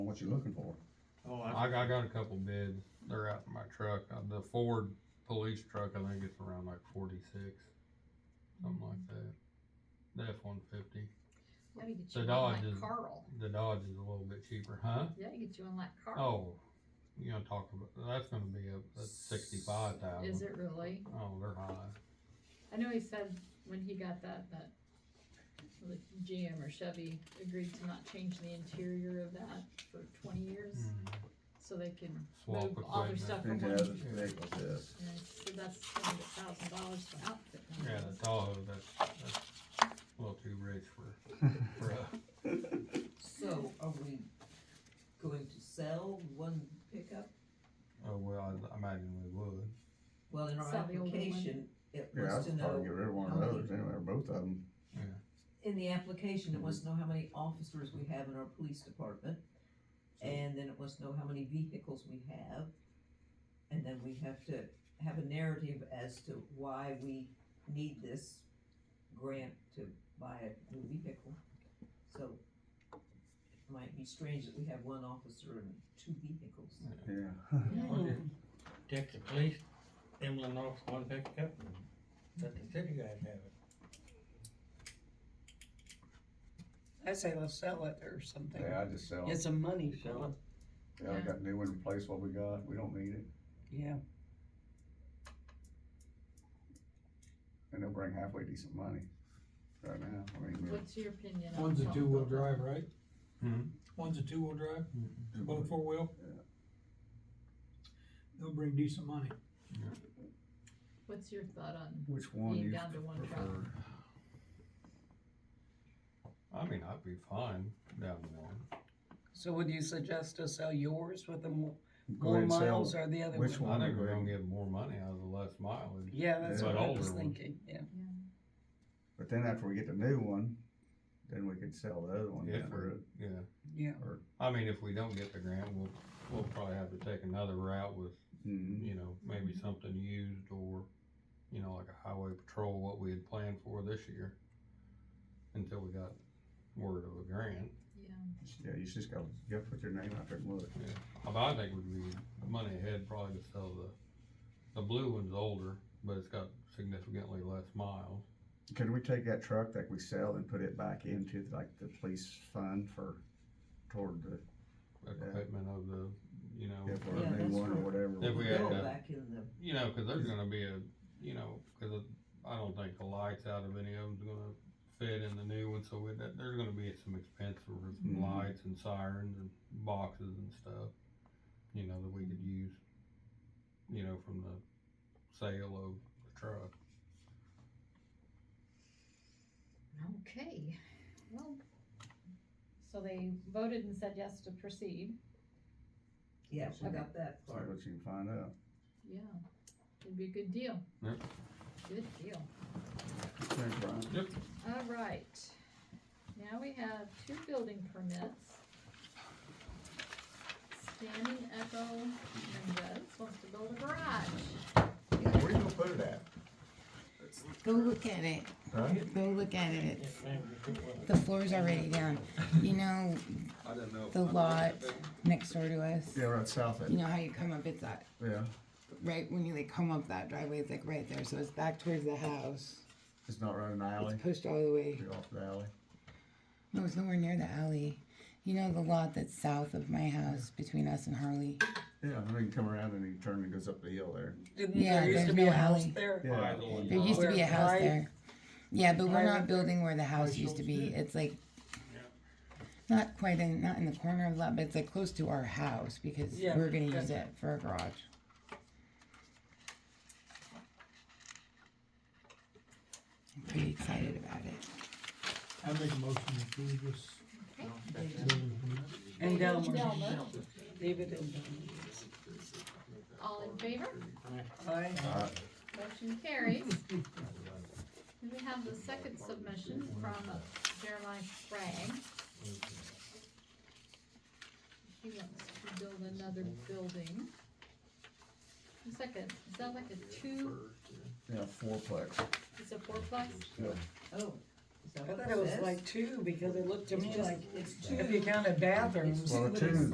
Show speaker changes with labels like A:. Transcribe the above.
A: what you're looking for.
B: Oh,
C: I,
B: I,
C: I got a couple bids, they're out in my truck, Uh, the Ford police truck, I think it's around like forty-six, something like
D: Mm-hmm.
C: that. The F one fifty,
D: Let me get
C: The
D: you one
C: Dodge
D: like
C: is-
D: Carl.
C: the Dodge is a little bit cheaper, huh?
D: Let me get you one like Carl.
C: Oh, you gonna talk about, that's gonna be up at sixty-five
D: Is
C: thousand.
D: it really?
C: Oh, they're high,
D: I know he said when he got that, that the GM or Chevy agreed to not change the interior of that for twenty years,
C: Mhm.
D: so they can
C: swap
D: move all their
C: equipment.
D: stuff from
A: Into
D: one.
A: other vehicles, yes.
D: And so that's gonna be a thousand dollars for outfit. and
C: Yeah,
D: things.
C: the Tahoe, that's, that's a little too rich for, for, us.
E: So are we going to sell one pickup?
C: oh, well, I- I imagine we would.
E: Well, in our
D: Sell the old one.
E: application, it
A: Yeah,
E: wants to
A: I'd probably
E: know,
A: get rid of one of
E: how many-
A: those, anyway, or both of them.
E: in the application, it wants to know how many officers we have in our police department. And then it wants to know how many vehicles we have. And then we have to have a narrative as to why we need this grant to buy a new vehicle. So it might be strange that we have one officer and two vehicles.
A: Yeah.
B: would
D: Hmm.
B: take the police, Emlyn off one pickup, and let the city guys have it.
F: I say let's sell it or something.
A: Yeah, I just sell
F: Get
A: it.
F: some money
B: Sell
F: for it.
A: Yeah, I got new and replace what we got. We don't need it.
F: Yeah,
A: And they'll bring halfway decent money right now. I mean, we're-
D: What's your opinion on?
G: One's a
D: something
G: two-wheel
D: about-
G: drive, right?
C: Hmm.
G: One's a two-wheel drive, one four-wheel?
A: Yeah.
G: They'll bring decent money.
D: What's your thought on
A: Which one
D: being
A: you
D: down to one truck?
A: prefer?
C: I mean, I'd be fine down one.
F: so would you suggest to sell yours with the mo-
A: Go ahead
F: more
A: and sell
F: miles
A: it.
F: or the other
A: Which
F: one?
C: I
A: one?
C: think
A: go
C: we're
A: ahead
C: gonna
A: and-
C: get more money out of the less mileage.
F: Yeah, that's
A: Yeah.
F: what I was
C: Older one.
F: thinking, yeah.
D: Yeah.
A: But then after we get the new one, then we could sell the other one.
C: If
A: for
C: we're,
A: it.
C: yeah,
F: Yeah,
C: I mean, if we don't get the grant, we'll, we'll probably have to take another route with,
A: Mhm.
C: you know, maybe something used or, you know, like a highway patrol, what we had planned for this year. Until we got word of a grant,
D: Yeah,
A: Yeah, you just gotta, you gotta put your name out there and look.
C: but I think would be money ahead probably to sell the, the blue one's older, but it's got significantly less miles.
A: Can we take that truck that we sell and put it back into like the police fund for, toward the,
C: Equipment of the, you know.
A: yeah, for
E: Yeah,
A: a new
E: that's
A: one or
E: right.
A: whatever?
C: If we
A: Yeah.
C: had
E: Bill
C: that.
E: back in the
C: You know, because there's gonna be a, you know, because I don't think the lights out of any of them's gonna fit in the new one, so with that, there's gonna be some expense for
A: Mhm.
C: some lights and sirens and boxes and stuff, you know, that we could use, you know, from the sale of the truck.
D: okay, well, so they voted and said yes to proceed,
E: Yeah,
A: So
E: I
A: you-
E: got that
A: See
E: part.
A: what you can find out.
D: yeah, it'd be a good deal.
C: Yep.
D: Good deal,
A: Thanks, Brian.
D: all right, now we have two building permits. Standing Echo Mendez wants to build a garage.
A: Where you gonna put it at?
H: Go look at it.
A: Huh?
H: Go look at it. It's,
B: Yes, ma'am, you took one.
H: the floor's already down. You know,
C: I didn't know.
H: the lot next door to us.
A: Yeah, right south of
H: You
A: it,
H: know how you come up? It's that
A: yeah.
H: right when you like come up that driveway. It's like right there. So it's back towards the house.
A: It's not right in the alley,
H: It's pushed all the way.
A: Be off the alley.
H: No, it's nowhere near the alley. You know the lot that's south of my house between us and Harley.
A: Yeah, and then you come around and you turn and it goes up the hill there.
F: didn't
H: Yeah,
F: there used
H: there's
F: to be
H: no
F: a house
H: alley.
F: there?
A: Yeah.
H: There used to be a house there. Yeah, but we're
F: Private.
H: not building where the house used to be. It's like not quite in not in the corner of the lot, but it's like close to our house because
F: Yeah,
H: we're gonna
F: yeah.
H: use it for a garage. I'm pretty excited about it.
G: I make a motion to approve this. building permit.
F: And Delmer,
D: Delmer,
F: David and Delmer.
D: all in favor?
F: Aye.
D: Motion carries. Then we have the second submission from Jeremiah Sprague. He wants to build another building. It's like a, is that like a two,
A: Yeah, fourplex.
D: it's a fourplex?
E: Oh, is that
F: I
E: what
F: thought it was
E: says?
F: like two because it looked to
E: It's
F: me
E: just-
F: like
E: it's two.
F: if you counted bathrooms.
A: Well,
F: it
A: two
F: was-